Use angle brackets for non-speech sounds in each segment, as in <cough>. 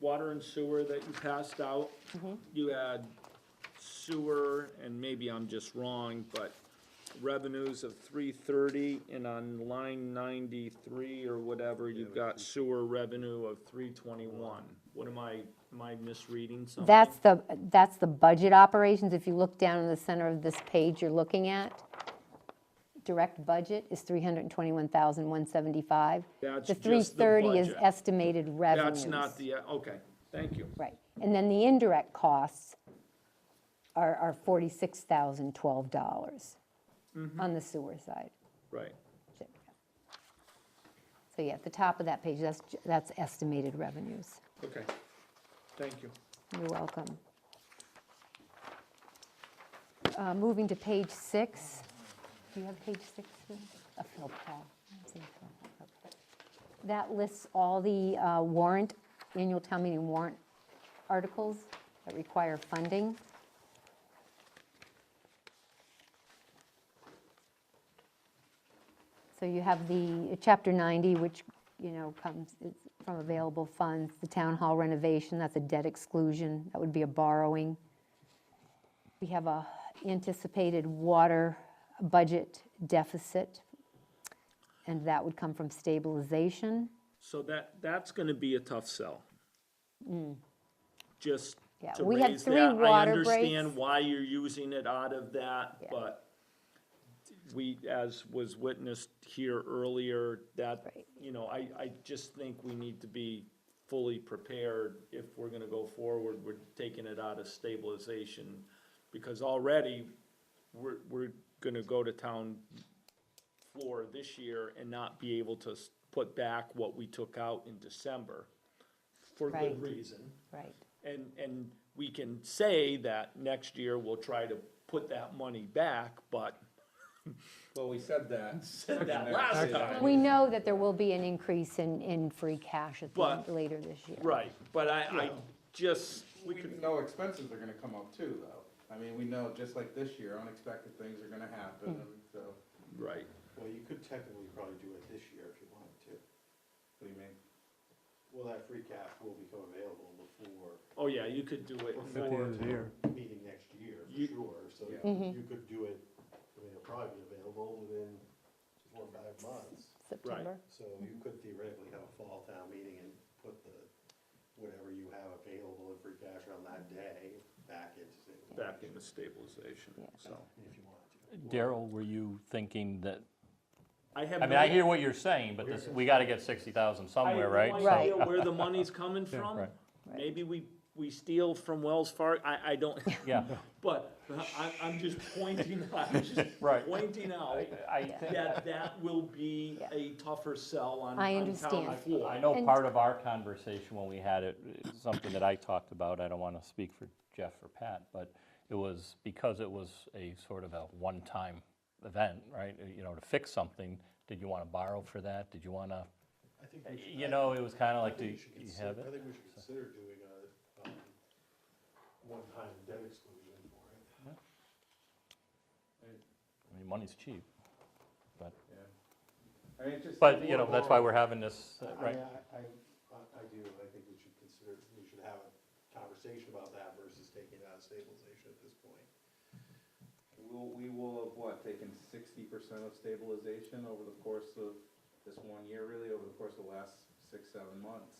water and sewer that you passed out. You had sewer, and maybe I'm just wrong, but revenues of three thirty, and on line ninety-three or whatever, you've got sewer revenue of three twenty-one. What am I, am I misreading something? That's the, that's the budget operations. If you look down in the center of this page you're looking at, direct budget is 321,175. That's The just the 330 is budget. estimated revenue. That's not the, okay, thank you. Right. And then the indirect costs are, are $46,012 Mm-hmm. on the sewer side. Right, So yeah, at the top of that page, that's, ju- that's estimated revenues. okay, thank you. You're welcome. Uh, Moving to page six. Do you have page six? Sue? Oh, no, Paul. That lists all the uh, warrant, annual town meeting warrant articles that require funding. So you have the uh, Chapter 90, which, you know, comes it's from available funds, the town hall renovation, that's a debt exclusion, that would be a borrowing. We have a anticipated water budget deficit, and that would come from stabilization. So that, that's gonna be a tough sell. Just Mm. Yeah, to we had raise three that, I water understand breaks. why you're using it out of that, Yeah. but we, as was witnessed here earlier, that, Right. you know, I, I just think we need to be fully prepared if we're gonna go forward, we're taking it out of stabilization. Because already, we're, we're gonna go to town floor this year and not be able to s- put back what we took out in December for Right. good reason. Right. And, and we can say that next year we'll try to put that money back, but Well, we said that. said that last time. We know that there will be an increase in, in free cash at the end- But- later this year. Right, but I, I just, we We could, know expenses are gonna come up too, though. I mean, we know, just like this year, unexpected things are gonna happen, and so, right, Well, you could technically probably do it this year if you wanted to. what do you mean? Well, that free cash will become available before oh yeah, you could do it for, Before the meeting next year, You- for sure, so Yeah. you could do it, I mean, it'll probably be available within four or five months. September. So you could theoretically have a fall town meeting and put the, whatever you have available in free cash on that day back into savings. back into stabilization, so. If you wanted to. Daryl, were you thinking that, I have I mean, no- I hear what you're saying, but this, we gotta get sixty thousand somewhere, right? I have So- no idea where the money's <laughs> coming from. Right. Maybe we, we steal from Wells Fargo, I, I don't, <laughs> Yeah, but I, I'm just pointing, I'm just <laughs> Right. pointing out I think, that that will be Yeah. a tougher sell on, I on town understand. floor. I know And- part of our conversation when we had it, it's something that I talked about, I don't wanna speak for Jeff or Pat, but it was because it was a sort of a one-time event, right? You know, to fix something, did you wanna borrow for that? Did you wanna, I think we should- Uh, you know, it was kinda I like, do think you we should you consider- have I it? think we should consider doing a, um, one-time debt exclusion for it. I mean, money's cheap, but, Yeah. I mean, it's just. but, you know, that's why we're having this, uh, I- right? I, I, I- I do, I think we should consider, we should have a conversation about that versus taking it out of stabilization at this point. We'll, we will have, what, taken sixty percent of stabilization over the course of this one year, really, over the course of the last six, seven months.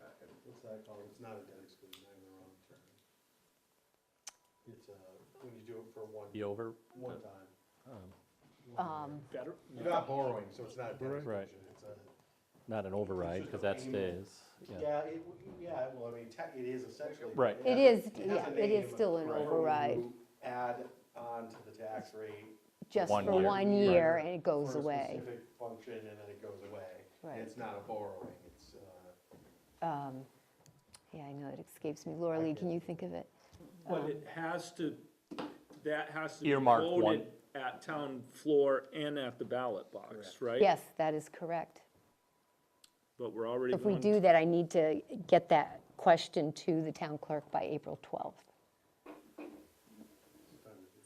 Uh, What's that called? It's not a debt exclusion, I have the wrong term. It's a, when you do it for one, The over, one time. Um, Better, You're not borrowing, so it's not a debt Right. exclusion, it's a. not an override, just because a that payment. stays, yeah. Yeah, it, w- yeah, well, I mean, tech, it is essentially. Right. It is, has a- yeah, has a it name, is still an but override, you Add on to the tax rate. just One for year. one Right. year, and it goes for a away. Specific function and then it goes away. Right. It's not a borrowing, it's, uh, Um, Yeah, I know, it escapes me. Laura Lee, can you think of it? but it has to, that has to be Earmark one. voted at town floor and at the ballot box, right? Yes, that is correct. But we're already If we going, do that, I need to get that question to the town clerk by April 12th.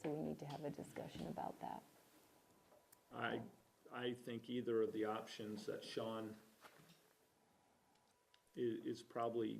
So we need to have a discussion about that. I, I think either of the options that Sean i- is probably